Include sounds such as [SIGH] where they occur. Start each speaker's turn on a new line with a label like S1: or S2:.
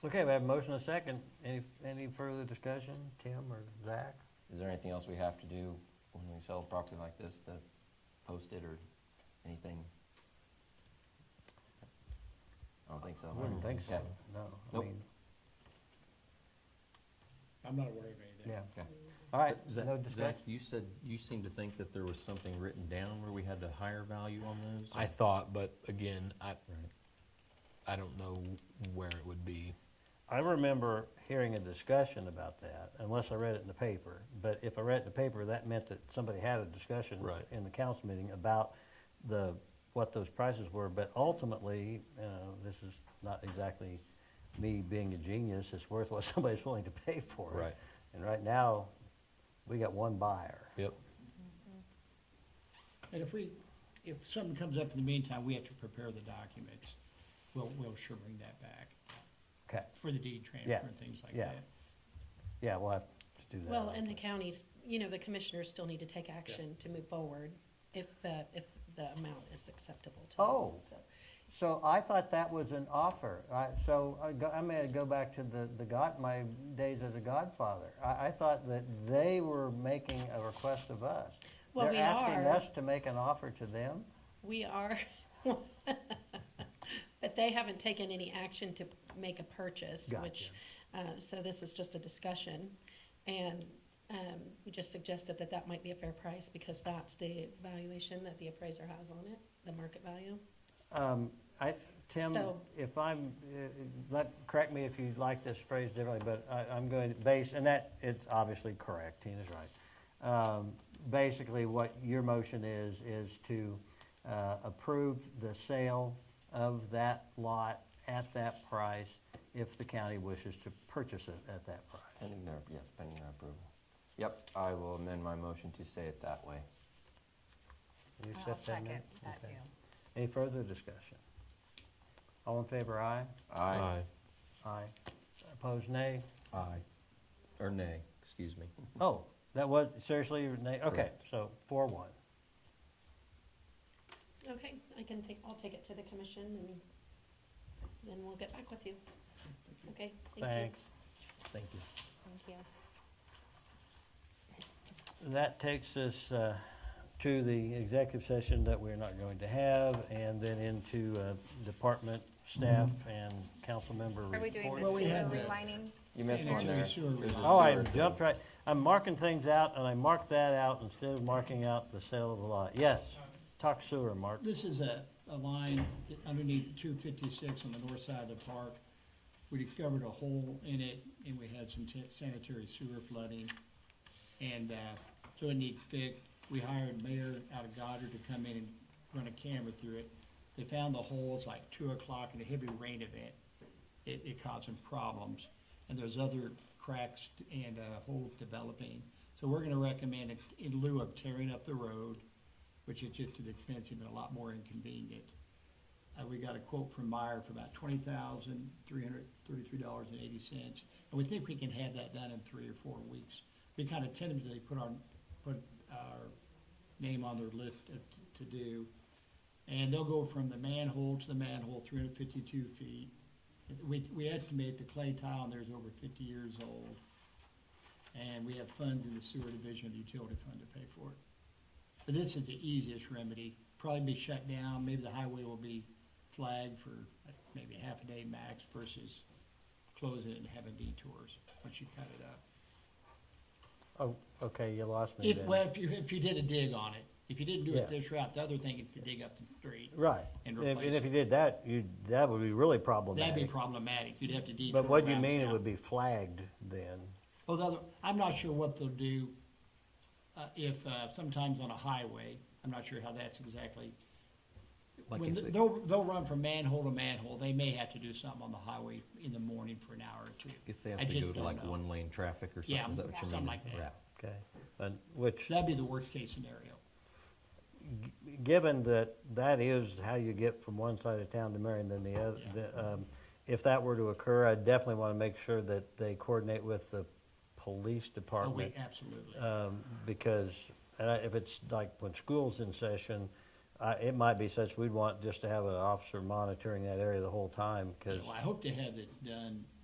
S1: Okay, we have a motion and a second. Any, any further discussion, Tim or Zach?
S2: Is there anything else we have to do when we sell a property like this to post it or anything? I don't think so.
S1: I wouldn't think so,
S2: Okay.
S1: no. I
S2: Nope.
S1: mean,
S3: I'm not aware of anything.
S1: Yeah,
S2: Okay.
S1: all right,
S4: Zach,
S1: no
S4: Zach,
S1: discussion.
S4: you said, you seemed to think that there was something written down where we had the higher value on those?
S5: I thought, but again, I,
S4: Right.
S5: I don't know where it would be.
S1: I remember hearing a discussion about that, unless I read it in the paper. But if I read it in the paper, that meant that somebody had a discussion
S5: Right.
S1: in the council meeting about the, what those prices were. But ultimately, uh, this is not exactly me being a genius, it's worth what [LAUGHS] somebody's willing to pay for it.
S5: Right.
S1: And right now, we got one buyer.
S5: Yep.
S3: And if we, if something comes up in the meantime, we have to prepare the documents, we'll, we'll sure bring that back
S1: Okay,
S3: for the deed
S1: Yeah,
S3: transfer and things like
S1: yeah.
S3: that.
S1: yeah, we'll have to do that.
S6: Well, and the counties, you know, the commissioners still need to take action to move forward if, uh, if the amount is acceptable to them.
S1: Oh.
S6: so.
S1: So I thought that was an offer. I, so I, go, I may go back to the, the God, my days as a godfather. I, I thought that they were making a request of us.
S6: Well,
S1: They're
S6: we
S1: asking
S6: are.
S1: us to make an offer to them?
S6: We are, [LAUGHS] but they haven't taken any action to make a purchase, which, uh, so this is just a discussion. And um, we just suggested that that might be a fair price because that's the valuation that the appraiser has on it, the market value.
S1: Um, I, Tim,
S6: So-
S1: if I'm, uh, let, correct me if you like this phrase differently, but I, I'm going to base, and that, it's obviously correct, Tina's right. Um, Basically, what your motion is, is to uh, approve the sale of that lot at that price if the county wishes to purchase it at that price.
S2: Pending their, yes, pending their approval. Yep, I will amend my motion to say it that way.
S1: Will you
S7: I'll
S1: accept that,
S7: second
S1: ma'am?
S7: that
S1: Okay.
S7: deal.
S1: Any further discussion? All in favor, aye?
S2: Aye.
S1: Aye. Opposed, nay?
S4: Aye. Or nay, excuse me.
S1: Oh, that was, seriously, your na- okay, so four one.
S6: Okay, I can take, I'll take it to the commission and then we'll get back with you. Okay, thank you.
S1: Thanks.
S4: Thank you.
S7: Thank you.
S1: That takes us uh, to the executive session that we're not going to have, and then into uh, department, staff,
S3: Mm-hmm.
S1: and council member
S7: Are we doing
S1: reports.
S7: the
S3: Well, we
S7: sewer
S3: have that.
S7: relining?
S2: You missed one
S3: Sanitary
S2: there.
S3: sewer
S2: There's a
S3: line.
S1: Oh, I
S2: sewer thing.
S1: jumped right, I'm marking things out, and I marked that out instead of marking out the sale of the lot. Yes, talk sewer, Mark.
S3: This is a, a line that underneath two fifty-six on the north side of the park. We discovered a hole in it and we had some ta- sanitary sewer flooding. And, uh, so it needs fixed. We hired Mayor out of Goddard to come in and run a camera through it. They found the hole, it's like two o'clock in a heavy rain event. It, it caused some problems. And there's other cracks and, uh, holes developing. So we're gonna recommend it in lieu of tearing up the road, which is just as expensive and a lot more inconvenient. Uh, we got a quote from Meyer for about twenty thousand, three hundred thirty-three dollars and eighty cents. And we think we can have that done in three or four weeks. We kind of tentatively put our, put our name on their list of t- to do. And they'll go from the manhole to the manhole, three hundred fifty-two feet. We, we estimate the clay tile in there is over fifty years old. And we have funds in the sewer division of the utility fund to pay for it. But this is the easiest remedy, probably be shut down, maybe the highway will be flagged for maybe half a day max versus closing it and having detours once you cut it up.
S1: Oh, okay, you lost me
S3: If,
S1: there.
S3: well, if you, if you did a dig on it, if you didn't do
S1: Yeah.
S3: it this route, the other thing is to dig up the street.
S1: Right,
S3: and
S1: and if and
S3: replace
S1: if
S3: it.
S1: you did that, you, that would be really
S3: That'd be
S1: problematic.
S3: problematic, you'd have to detour.
S1: But what do you
S3: around
S1: mean it
S3: town.
S1: would be flagged then?
S3: Well, the other, I'm not sure what they'll do, uh, if, uh, sometimes on a highway, I'm not sure how that's exactly.
S2: Like
S3: When,
S2: if
S3: th-
S2: it-
S3: they'll, they'll run from manhole to manhole, they may have to do something on the highway in the morning for an hour or two.
S4: If they have
S3: I
S4: to
S3: just
S4: go to
S3: don't
S4: like
S3: know.
S4: one lane traffic or
S3: Yeah,
S4: something, is that what you mean?
S3: something like that.
S4: Yeah.
S1: Okay, and which,
S3: That'd be the worst case scenario.
S1: given that that is how you get from one side of town to Marion than the other,
S3: Yeah.
S1: the, um, if that were to occur, I definitely want to make sure that they coordinate with the police
S3: Oh, we,
S1: department.
S3: absolutely.
S1: um, Because uh, if it's like when school's in session, uh, it might be such, we'd want just to have an officer monitoring that area the whole time, because
S3: Well, I hope to have it done